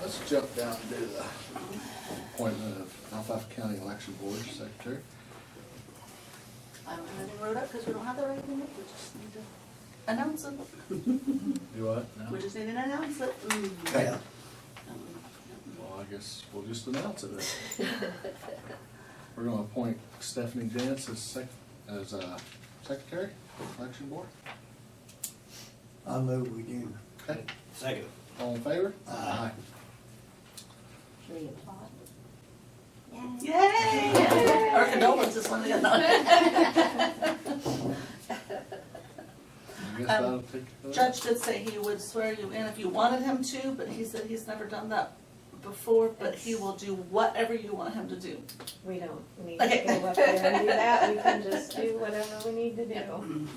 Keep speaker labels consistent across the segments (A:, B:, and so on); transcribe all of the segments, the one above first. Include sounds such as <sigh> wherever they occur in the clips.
A: Let's jump down to the appointment of Alfalfa County Election Board Secretary.
B: I don't have anything wrote up because we don't have that right in it. We just need to announce it.
A: Do what? No?
B: We just need to announce it. Mm.
A: Yeah.
B: Um,
A: Well, I guess we'll just announce it. then.
B: <laughs>
A: We're gonna appoint Stephanie Dance as sec, as uh, secretary, election board.
C: I move we do.
A: Okay,
D: Second.
A: all in favor?
C: Aye.
E: Should we applaud?
B: Yay! Our condolences on the
A: Aye. I guess that'll take.
B: Um,
A: care of it.
B: <laughs> Judge did say he would swear you in if you wanted him to, but he said he's never done that before, but he will do whatever you want him to do.
E: We don't need
B: Okay.
E: to go up there and do <laughs> that, we can just do whatever we need to do.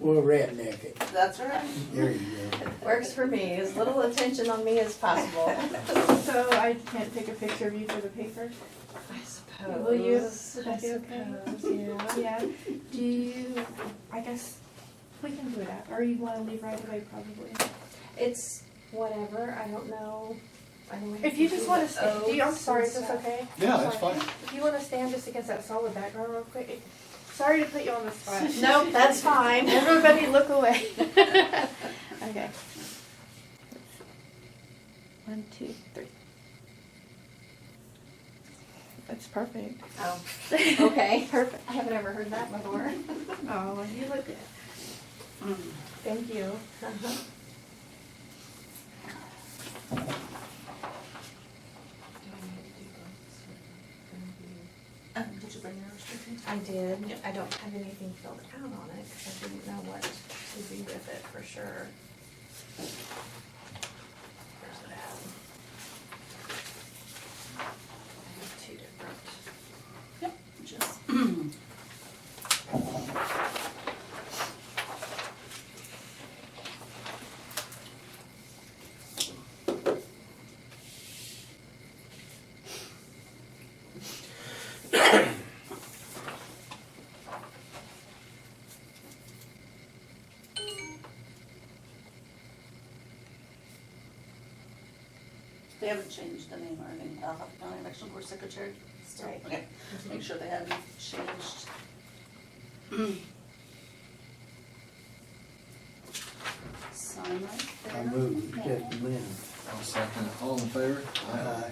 C: We'll redneck it.
B: That's right.
C: There you go.
E: Works for me, as little attention on me as possible,
F: So I can't take a picture of you for the paper?
E: I suppose.
F: Will you? Would that be okay?
E: suppose, yeah.
F: Yeah. Do you, I guess, we can do that, or you wanna leave right away probably.
E: It's whatever, I don't know. I don't know
F: If you just wanna, sta- do you, I'm
E: oats
F: sorry,
E: and
F: is this
E: stuff.
F: okay?
A: Yeah, that's
F: Sorry.
A: fine.
F: If you wanna stand just against that solid background real quick, sorry to put you on the spot.
E: Nope,
F: <laughs>
E: that's fine.
F: Everybody
G: <laughs>
F: look away. Okay.
G: One, two, three. That's perfect.
E: Oh, okay, perfect. I haven't ever heard that before.
F: Oh, you look good. Uh-huh.
B: Mm.
F: Thank you.
B: Um, did you bring your restrictions?
E: I did.
B: Yep.
E: I don't have anything filled out on it because I didn't know what to do with it for sure. Where's it at? I have two different.
B: Yep. Just. They haven't changed the name or anything, uh, county election board secretary? Still,
E: Right.
B: okay. Make sure they haven't changed. Sign right there.
C: I move we accept the minutes.
A: I'll second it. All in favor?
C: Aye.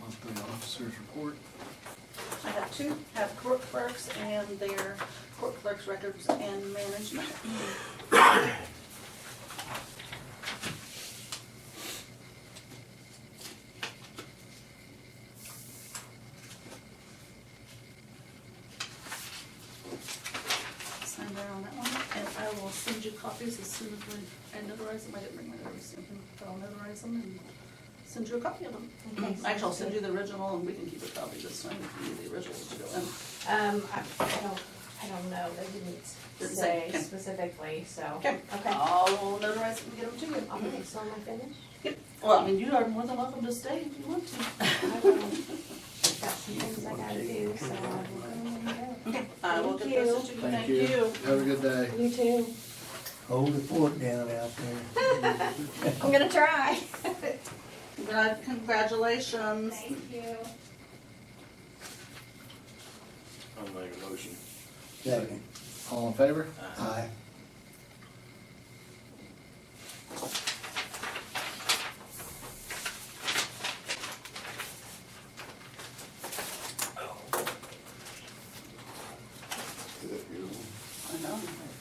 A: Monthly officers report.
B: I have two, have court clerks and their court clerks records and management. Sign there on that one, and I will send you copies as soon as we, I notarize them, I didn't bring my notary stamp, in, but I'll notarize them and send you a copy of them.
E: Okay,
B: Actually, I'll
E: sounds
B: send
E: good.
B: you the original and we can keep a copy this time if you need the originals to go in.
E: Um, I, I don't, I don't know, they didn't
B: Didn't
E: say
B: say. <laughs>
E: specifically, so.
B: Okay, I'll notarize it and get them to you.
E: All right, so am I finished?
B: <laughs> Yep, well, I mean, you are more than welcome to stay if you want to.
E: I will- I've got some things I gotta do, so I will go
B: <laughs>
E: and
B: Okay, I will get
E: Thank
B: those to you, thank you.
A: Have a good day.
E: go. You too.
C: Hold the fort down out there.
E: I'm
F: <laughs>
E: gonna try.
B: Glad- Congratulations.
E: you.
D: I'll make a motion.
C: Second.
A: All in favor?
C: Aye.
B: I know.